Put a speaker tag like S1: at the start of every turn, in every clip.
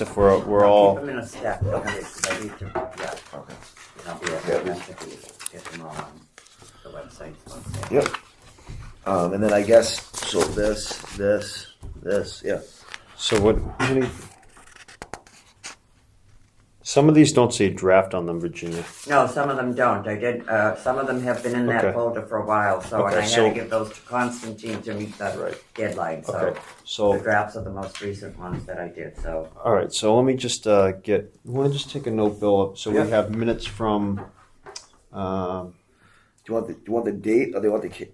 S1: If we're, we're all,
S2: Keep them in a stack, don't worry, 'cause I need to, yeah,
S3: Okay.
S2: and I'll be
S3: Yeah,
S2: right
S3: there's-
S2: back if we get them all on the website.
S3: Yep. Um, and then I guess, so this, this, this, yeah.
S1: so what, how many- some of these don't say draft on them, Virginia.
S2: No, some of them don't. I did, uh, some of them have been in
S1: Okay.
S2: that folder for a while, so, and
S1: Okay,
S2: I had
S1: so-
S2: to give those to Constantine to meet the
S1: Right.
S2: deadline, so.
S1: Okay, Oh.
S2: The
S1: so,
S2: drafts are the most recent ones that I did, so.
S1: all right, so let me just uh, get, you want to just take a note, Bill? So we
S3: Yeah.
S1: have minutes from, um,
S3: Do you want the, do you want the date or do you want the ca-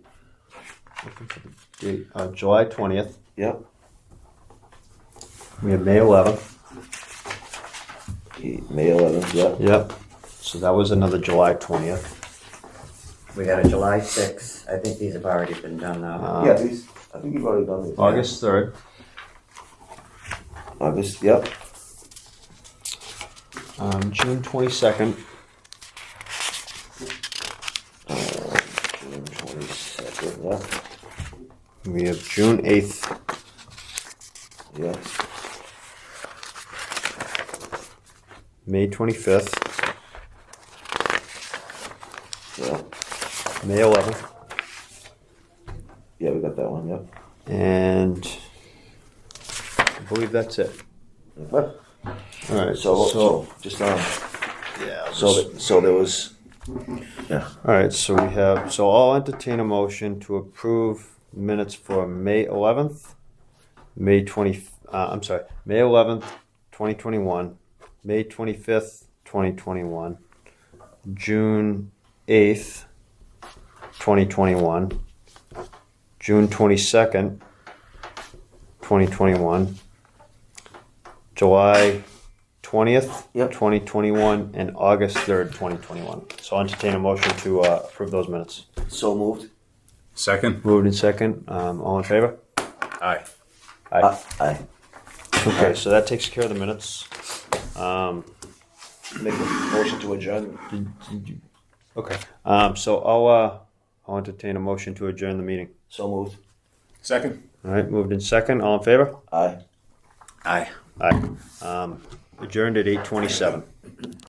S1: looking for the date, uh, July 20th.
S3: Yep.
S1: We have May 11th.
S3: May eleventh, yep.
S1: Yep. So that was another July 20th.
S2: We got a July sixth. I think these have already been done though.
S1: Uh,
S3: Yeah, these, I think you've already done these.
S1: August 3rd.
S3: August, yep.
S1: Um, June 22nd.
S3: June twenty-second, yep,
S1: We have June 8th.
S3: yep.
S1: May 25th.
S3: Yeah,
S1: May 11th.
S3: yeah, we got that one, yep.
S1: And I believe that's it.
S3: But,
S1: All right.
S3: so, so, just, um,
S1: yeah.
S3: so, th- so there was,
S1: all right. So we have. So I'll entertain a motion to approve minutes for May 11th, May 20. Uh, I'm sorry, May 11th, 2021, May 25th, 2021, June 8th, 2021, June 22nd, 2021, July 20th,
S3: Yep.
S1: 2021, and August 3rd, 2021. So I'll entertain a motion to uh, approve those minutes.
S3: so moved.
S4: Second?
S1: Moved in second. Um, all in favor?
S4: Aye.
S1: Aye.
S3: Uh, aye.
S1: okay, so that takes care of the minutes. Um,
S3: Make a motion to adjourn.
S1: okay. Um, so I'll uh, I'll entertain a motion to adjourn the meeting.
S3: So moved.
S4: Second?
S1: All right, moved in second. All in favor?
S3: Aye.
S4: Aye.
S1: Aye. Um, adjourned at eight twenty-seven.